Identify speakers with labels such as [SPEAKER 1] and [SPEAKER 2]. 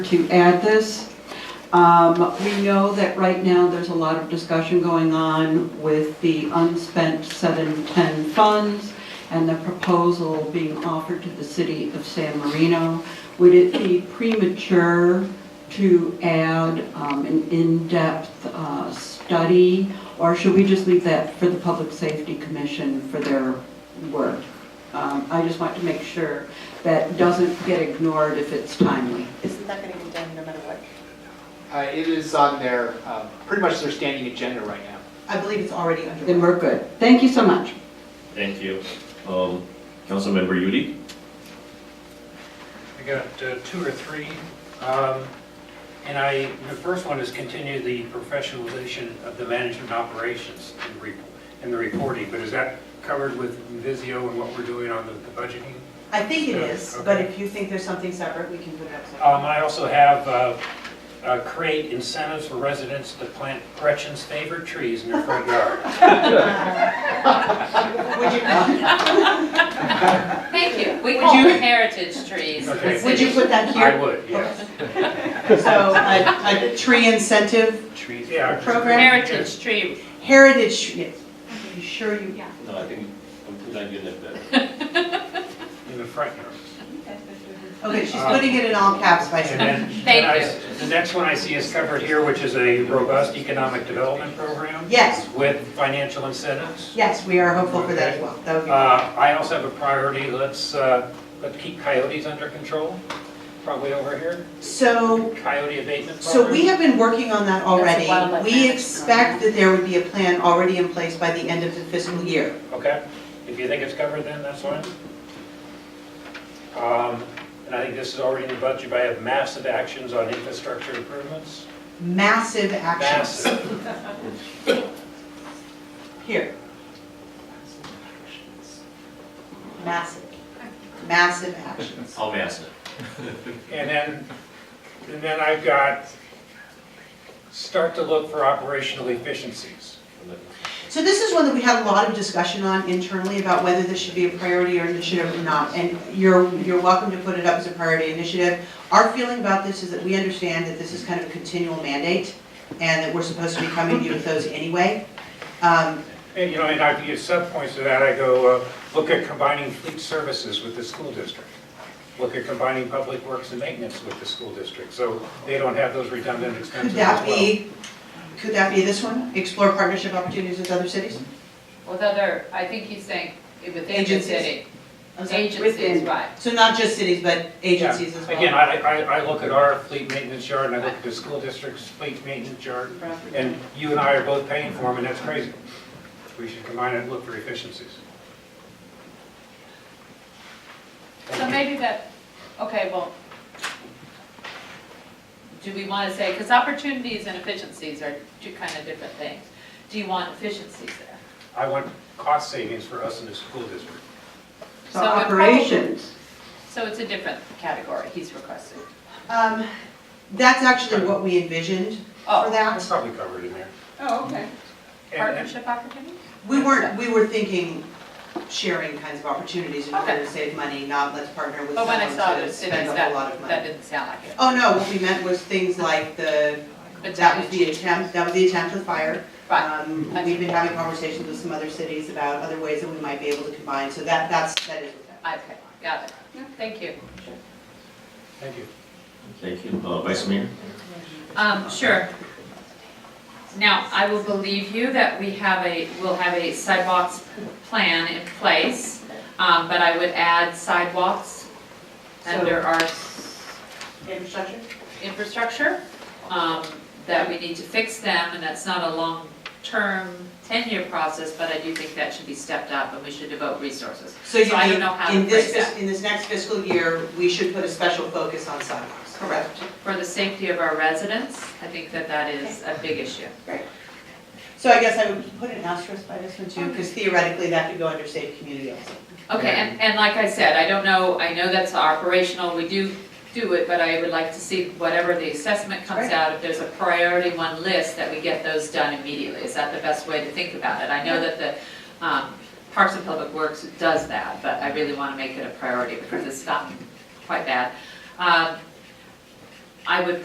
[SPEAKER 1] to add this. Um, We know that right now, there's a lot of discussion going on with the unspent 710 funds and the proposal being offered to the city of San Marino. Would it be premature to add um, an in-depth uh, study? Or should we just leave that for the Public Safety Commission for their work? Um, I just want to make sure that doesn't get ignored if it's timely.
[SPEAKER 2] Isn't that going to get done no matter what?
[SPEAKER 3] Uh, It is on their, uh, pretty much their standing agenda right now.
[SPEAKER 2] I believe it's already
[SPEAKER 1] Then
[SPEAKER 2] underway.
[SPEAKER 1] we're good. Thank you so much.
[SPEAKER 4] Thank you. Um, Councilmember Udi?
[SPEAKER 5] I got uh, two or three. Um, And I, the first one is continue the professionalization of the management operations and re- and the reporting. But is that covered with Visio and what we're doing on the the budgeting?
[SPEAKER 2] I think it
[SPEAKER 5] Yeah,
[SPEAKER 2] is, but
[SPEAKER 5] okay.
[SPEAKER 2] if you think there's something separate, we can put it up
[SPEAKER 5] Um,
[SPEAKER 2] separate.
[SPEAKER 5] I also have uh, uh, create incentives for residents to plant Gretchen's favorite trees in their front yard.
[SPEAKER 2] Would you,
[SPEAKER 6] Thank you. We
[SPEAKER 2] Would
[SPEAKER 6] call
[SPEAKER 2] you-
[SPEAKER 6] them heritage trees. in the
[SPEAKER 5] Okay.
[SPEAKER 2] would you
[SPEAKER 6] city.
[SPEAKER 2] put that
[SPEAKER 5] I
[SPEAKER 2] here?
[SPEAKER 5] would, yes.
[SPEAKER 2] So a, a tree incentive
[SPEAKER 3] Trees.
[SPEAKER 5] Yeah.
[SPEAKER 2] program,
[SPEAKER 6] Heritage tree.
[SPEAKER 2] heritage, tr- yes. Are you sure you?
[SPEAKER 4] No, I think I'm not getting it better.
[SPEAKER 5] In the front yard.
[SPEAKER 2] Okay, she's putting it in all caps by
[SPEAKER 5] And
[SPEAKER 2] saying.
[SPEAKER 5] then,
[SPEAKER 6] Thank
[SPEAKER 5] and I- the next one I see is covered here, which is a robust economic development program.
[SPEAKER 2] Yes.
[SPEAKER 5] With financial incentives.
[SPEAKER 2] Yes, we are hopeful for that as well. That would
[SPEAKER 5] Uh,
[SPEAKER 2] be,
[SPEAKER 5] I also have a priority, let's, uh, let's keep coyotes under control, probably over here,
[SPEAKER 2] so
[SPEAKER 5] coyote abatement program.
[SPEAKER 2] So we have been working on that already.
[SPEAKER 6] wildlife
[SPEAKER 2] We
[SPEAKER 6] management
[SPEAKER 2] expect that there would be a plan already in place by the end of the fiscal year.
[SPEAKER 5] Okay, if you think it's covered, then that's fine. Um, And I think this is already in the budget, but I have massive actions on infrastructure improvements.
[SPEAKER 2] Massive actions.
[SPEAKER 5] Massive.
[SPEAKER 2] Here, massive, massive actions.
[SPEAKER 4] I'll mask it.
[SPEAKER 5] And then, and then I've got, start to look for operational efficiencies.
[SPEAKER 2] So this is one that we had a lot of discussion on internally about whether this should be a priority or initiative or not. And you're, you're welcome to put it up as a priority initiative. Our feeling about this is that we understand that this is kind of a continual mandate and that we're supposed to be coming to you with those anyway. Um,
[SPEAKER 5] And, you know, and I could give subpoints to that, I go, uh, look at combining fleet services with the school district. Look at combining public works and maintenance with the school district, so they don't have those redundant
[SPEAKER 2] Could
[SPEAKER 5] expenses
[SPEAKER 2] that
[SPEAKER 5] as well.
[SPEAKER 2] be, could that be this one? Explore partnership opportunities with other cities?
[SPEAKER 6] With other, I think he's saying within the
[SPEAKER 2] Agencies.
[SPEAKER 6] city.
[SPEAKER 2] I'm sorry.
[SPEAKER 6] Agencies, right.
[SPEAKER 2] So not just cities, but agencies as
[SPEAKER 5] Yeah.
[SPEAKER 2] well?
[SPEAKER 5] Again, I, I, I look at our fleet maintenance yard, and I look at the school district's fleet maintenance yard, and you and I are both paying for them, and that's crazy. We should combine it and look for efficiencies.
[SPEAKER 6] So maybe that, okay, well, do we want to say, because opportunities and efficiencies are two kind of different things. Do you want efficiencies there?
[SPEAKER 5] I want cost savings for us in the school district.
[SPEAKER 1] So
[SPEAKER 6] So it probably-
[SPEAKER 1] operations,
[SPEAKER 6] So it's a different category he's requesting.
[SPEAKER 2] Um, That's actually what we envisioned for
[SPEAKER 6] Oh,
[SPEAKER 2] that.
[SPEAKER 5] That's probably covered in there.
[SPEAKER 6] oh, okay.
[SPEAKER 5] And- and-
[SPEAKER 6] Partnership opportunities?
[SPEAKER 2] We weren't, we were thinking sharing kinds of opportunities in order
[SPEAKER 6] Okay.
[SPEAKER 2] to save money, not let's partner with
[SPEAKER 6] But when
[SPEAKER 2] someone
[SPEAKER 6] I saw
[SPEAKER 2] to
[SPEAKER 6] those
[SPEAKER 2] spend
[SPEAKER 6] cities,
[SPEAKER 2] a whole lot of
[SPEAKER 6] that, that
[SPEAKER 2] money.
[SPEAKER 6] didn't sound like it.
[SPEAKER 2] Oh, no, what we meant was things like the,
[SPEAKER 6] But
[SPEAKER 2] that was the attempt, that was the attempt with fire.
[SPEAKER 6] Right,
[SPEAKER 2] Um, We've been having conversations with some other cities about other ways that we might be able to combine, so that, that's, that is what that.
[SPEAKER 6] okay, got it. Thank you.
[SPEAKER 5] Thank you.
[SPEAKER 4] Thank you. Uh, Vice Mayor?
[SPEAKER 6] Um, sure. Now, I will believe you that we have a, we'll have a sidewalks plan in place, um, but I would add sidewalks under our s-
[SPEAKER 2] Infrastructure?
[SPEAKER 6] infrastructure, um, that we need to fix them, and that's not a long-term, ten-year process, but I do think that should be stepped up, and we should devote resources.
[SPEAKER 2] So you
[SPEAKER 6] I don't
[SPEAKER 2] mean,
[SPEAKER 6] know how to
[SPEAKER 2] in this,
[SPEAKER 6] phrase that.
[SPEAKER 2] fis- in this next fiscal year, we should put a special focus on sidewalks. Correct.
[SPEAKER 6] For the safety of our residents, I think that that is a big issue.
[SPEAKER 2] So I guess I would put an asterisk by this one too, because theoretically that could go under safe community also.
[SPEAKER 6] Okay, and, and like I said, I don't know, I know that's operational, we do do it, but I would like to see whatever the assessment comes
[SPEAKER 2] Right.
[SPEAKER 6] out, if there's a priority one list, that we get those done immediately. Is that the best way to think about it? I know that the um, Parks and Public Works does that, but I really want to make it a priority because it's gotten quite bad. Um, I would